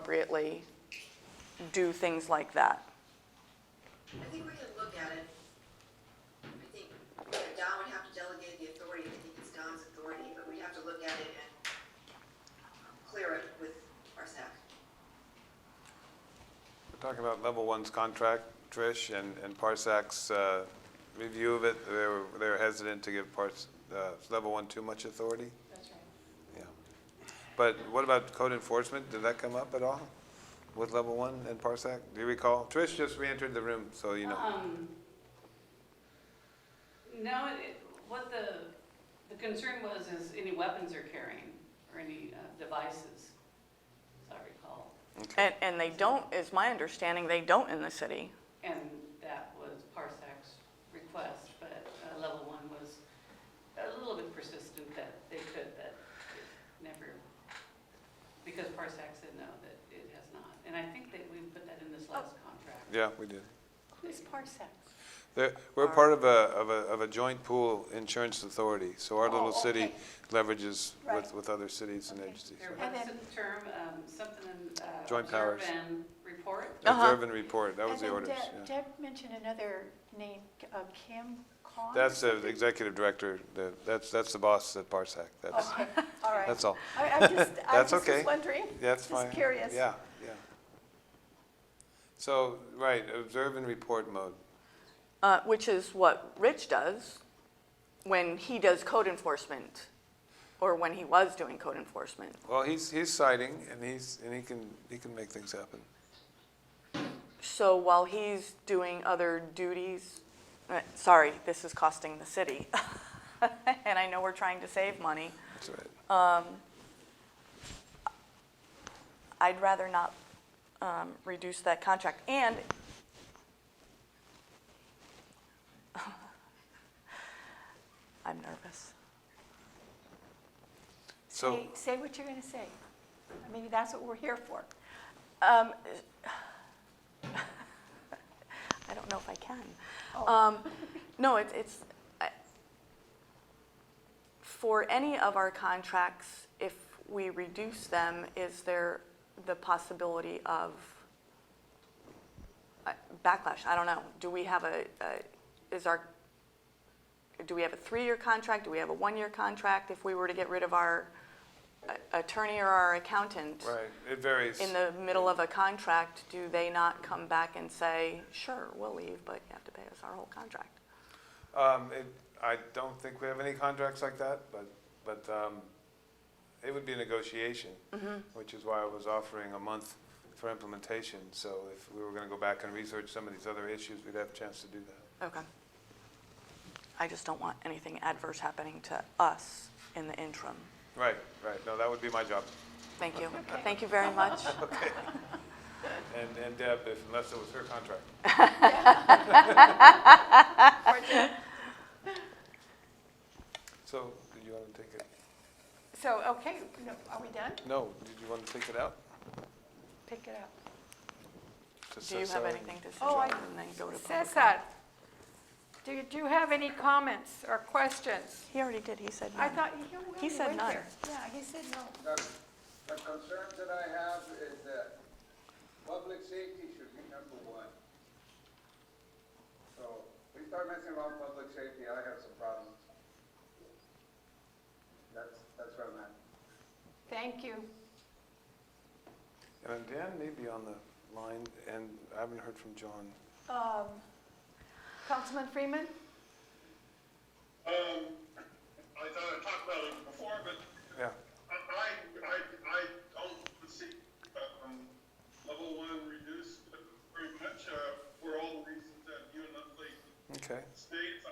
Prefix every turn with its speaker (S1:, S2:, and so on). S1: appropriately do things like that.
S2: I think we can look at it. I think that Don would have to delegate the authority, I think it's Don's authority, but we'd have to look at it and clear it with our SAC.
S3: We're talking about level one's contract, Trish, and, and Parsac's uh, review of it. They were, they were hesitant to give Pars, uh, level one too much authority. That's right. Yeah. But what about code enforcement? Did that come up at all with level one and Parsac? Do you recall? Trish just re-entered the room, so you
S4: Uh-huh.
S3: know.
S5: Um, no, it- it, what the, the concern was is any weapons they're carrying, or any uh, devices, as I recall.
S1: And, and they don't, is my understanding, they don't in the city.
S5: And that was Parsec's request, but uh, level one was a little bit persistent that they could, that it never, because Parsec said no, that it has not. And I think that we put that in this last contract.
S3: Yeah, we did.
S5: Who's Parsec?
S3: They're- We're part of a, of a, of a joint pool insurance authority, so our little
S4: Oh,
S3: city
S4: okay.
S3: leverages with,
S4: Right.
S3: with other cities and agencies.
S5: There
S3: so.
S4: And
S5: was
S4: then-
S5: a term, um, something, uh,
S3: Joint
S5: observe
S3: powers.
S5: and report.
S1: Uh-huh.
S3: Observe and report, that was
S4: And
S3: the
S4: then
S3: orders,
S4: Deb-
S3: yeah.
S4: Deb mentioned another name, uh, Kim Kong?
S3: That's the executive director, the, that's, that's the boss at Parsec, that's,
S4: Okay, all right.
S3: that's all.
S4: I- I'm just, I
S3: That's
S4: was
S3: okay.
S4: just wondering.
S3: That's
S4: Just
S3: fine.
S4: curious.
S3: Yeah, yeah. So, right, observe and report mode.
S1: Uh, which is what Rich does when he does code enforcement, or when he was doing code enforcement.
S3: Well, he's, he's citing, and he's, and he can, he can make things happen.
S1: So while he's doing other duties, uh, sorry, this is costing the city. And I know we're trying to save money.
S3: That's right.
S1: I'd rather not um, reduce that contract. And I'm nervous.
S3: So-
S4: Say- Say what you're going to say. I mean, that's what we're here for.
S1: Um, I don't know if I can. Um, No, it's, it's, I- for any of our contracts, if we reduce them, is there the possibility of uh, backlash? I don't know. Do we have a, a- is our, do we have a three-year contract? Do we have a one-year contract if we were to get rid of our uh, attorney or our accountant?
S3: Right, it varies.
S1: in the middle of a contract, do they not come back and say, sure, we'll leave, but you have to pay us our whole contract?
S3: Um, it, I don't think we have any contracts like that, but, but, um, it would be a negotiation,
S1: Mm-hmm.
S3: which is why I was offering a month for implementation. So if we were gonna go back and research some of these other issues, we'd have a chance to do that.
S1: Okay. I just don't want anything adverse happening to us in the interim.
S3: Right, right, no, that would be my job.
S1: Thank you. Thank you very much.
S3: And, and Deb, if, unless it was her contract. So, did you want to take it,
S4: So, okay, no, are we done?
S3: no, did you want to take it out?
S4: Pick it up.
S3: To
S1: Do you have
S3: Cesar?
S1: anything to
S6: Oh, I-
S1: suggest and then go to public?
S6: Cesar, do you, do you have any comments or questions?
S1: He already did. He said
S6: I
S1: no.
S6: thought, you
S1: He said
S4: no.
S1: none.
S4: Yeah, he said no.
S7: The the concern that I have is that public safety should be number one. So we start messing around with public safety, I have some problems. That's, that's where I'm at.
S6: thank you.
S3: And Dan may be on the line, and I haven't heard from John.
S4: Um,
S6: Councilman Freeman?
S8: Um, I thought I talked about it before, but
S3: Yeah,
S8: I, I, I, I don't see, um, level one reduced very much, uh, for all the reasons that you and Leslie
S3: okay,
S8: states. uh, um, Uh, uh,